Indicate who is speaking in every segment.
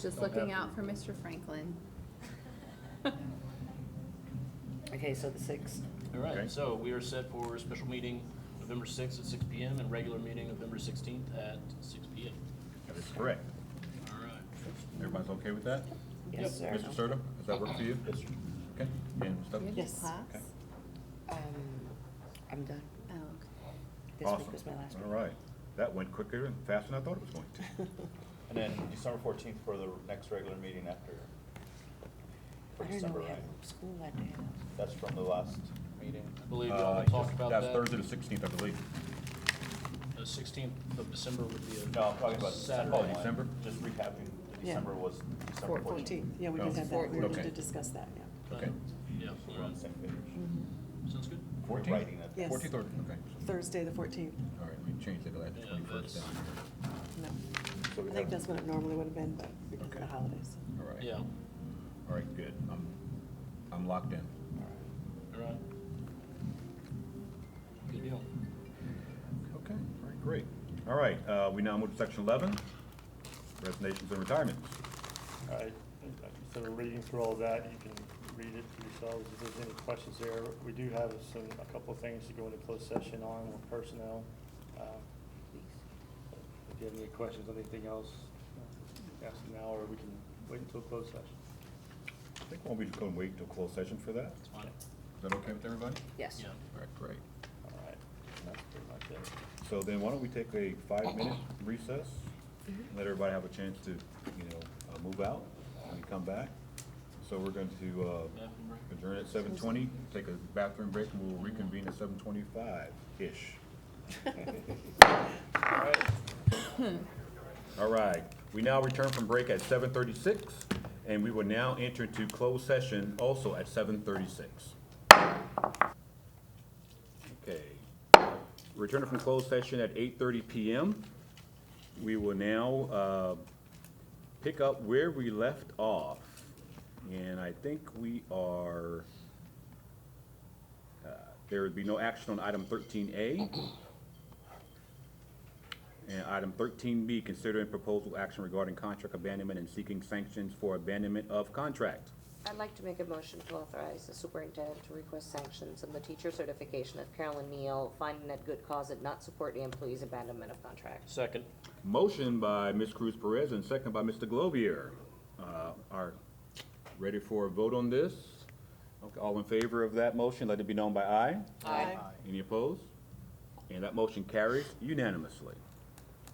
Speaker 1: just
Speaker 2: Don't have
Speaker 1: looking
Speaker 2: to.
Speaker 1: out for Mr. Franklin.
Speaker 3: Okay, so the sixth.
Speaker 2: All
Speaker 4: Okay.
Speaker 2: right, so we are set for a special meeting November 6th at 6 PM and regular meeting November 16th at 6 PM.
Speaker 4: That is correct.
Speaker 2: All right.
Speaker 4: Everybody's okay with that?
Speaker 3: Yes, sir.
Speaker 4: Mr. Serta, does that work for you?
Speaker 2: Yes, sir.
Speaker 4: Okay, and Ms. Douglas?
Speaker 1: You have
Speaker 3: Yes.
Speaker 1: class?
Speaker 4: Okay.
Speaker 3: Um, I'm done.
Speaker 1: Oh, okay.
Speaker 3: This
Speaker 4: Awesome.
Speaker 3: week was my last week.
Speaker 4: All right, that went quicker and faster than I thought it was going to. Uh,
Speaker 5: And then December fourteenth for the next regular meeting after, for
Speaker 3: I don't know,
Speaker 5: December,
Speaker 3: we had
Speaker 5: right?
Speaker 3: school that day.
Speaker 5: That's from the last meeting.
Speaker 2: I believe you all
Speaker 4: Uh,
Speaker 2: talked about
Speaker 4: That's
Speaker 2: that.
Speaker 4: Thursday the sixteenth, I believe.
Speaker 2: The 16th of December would be a
Speaker 5: No, I'm talking about December
Speaker 2: Saturday.
Speaker 4: Oh, December.
Speaker 5: one. Just recapping, the
Speaker 6: Yeah.
Speaker 5: December was December fourteenth.
Speaker 6: Yeah, we
Speaker 4: Oh,
Speaker 6: did have that, we
Speaker 4: okay.
Speaker 6: did discuss that, yeah.
Speaker 4: Okay.
Speaker 2: Yeah,
Speaker 5: So
Speaker 2: all
Speaker 5: we're on
Speaker 2: right.
Speaker 5: the same page.
Speaker 3: Mm-hmm.
Speaker 2: Sounds good.
Speaker 5: We're
Speaker 4: Fourteenth?
Speaker 5: writing that.
Speaker 6: Yes.
Speaker 4: Fourteenth or, okay.
Speaker 6: Thursday, the fourteenth.
Speaker 4: All right, we changed it to that
Speaker 2: Yeah,
Speaker 4: twenty-first
Speaker 2: that's-
Speaker 4: down here.
Speaker 6: No,
Speaker 5: So we
Speaker 6: I think
Speaker 5: have-
Speaker 6: that's what it normally would have been, but because of
Speaker 4: Okay.
Speaker 6: the holidays.
Speaker 4: All right.
Speaker 2: Yeah, all
Speaker 4: All right, good. I'm, I'm locked in.
Speaker 2: right. Good deal.
Speaker 4: Okay, all right, great. All right, uh, we now move to section eleven, resignations and retirements.
Speaker 7: I, instead of reading through all that, you can read it for yourselves if there's any questions there. We do have some, a couple of things to go into closed session on with personnel. Um, If you have any questions, on anything else, uh, ask now, or we can wait until closed session.
Speaker 4: I think we'll be just going to wait till closed session for that.
Speaker 2: It's fine.
Speaker 4: Is that okay with everybody?
Speaker 3: Yes.
Speaker 2: Yeah.
Speaker 4: All right, great.
Speaker 7: All right, and that's pretty much it.
Speaker 4: So then why don't we take a five-minute recess?
Speaker 3: Mm-hmm.
Speaker 4: Let everybody have a chance to, you know, uh, move out when we come back. So we're going to uh,
Speaker 2: Bathroom break.
Speaker 4: adjourn at seven twenty, take a bathroom break, and we'll reconvene at seven twenty-five-ish. All right, we now return from break at seven thirty-six, and we will now enter into closed session also at seven thirty-six. Okay, returning from closed session at eight thirty PM. We will now, uh, pick up where we left off, and I think we are, uh, there would be no action on item thirteen A. And item thirteen B, considering proposal action regarding contract abandonment and seeking sanctions for abandonment of contract.
Speaker 8: I'd like to make a motion to authorize the superintendent to request sanctions on the teacher certification of Carolyn Neal, finding that good cause did not support the employee's abandonment of contract.
Speaker 2: Second.
Speaker 4: Motion by Ms. Cruz Perez and second by Mr. Glovier. Uh, Are, ready for a vote on this? Okay, All in favor of that motion, let it be known by aye.
Speaker 3: Aye.
Speaker 4: Any opposed? And that motion carries unanimously.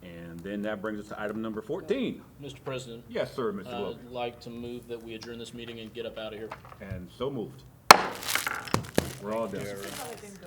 Speaker 4: And then that brings us to item number fourteen.
Speaker 2: Mr. President,
Speaker 4: Yes, sir, Mr.
Speaker 2: I'd
Speaker 4: Glover.
Speaker 2: like to move that we adjourn this meeting and get up out of here.
Speaker 4: And so moved. We're all done.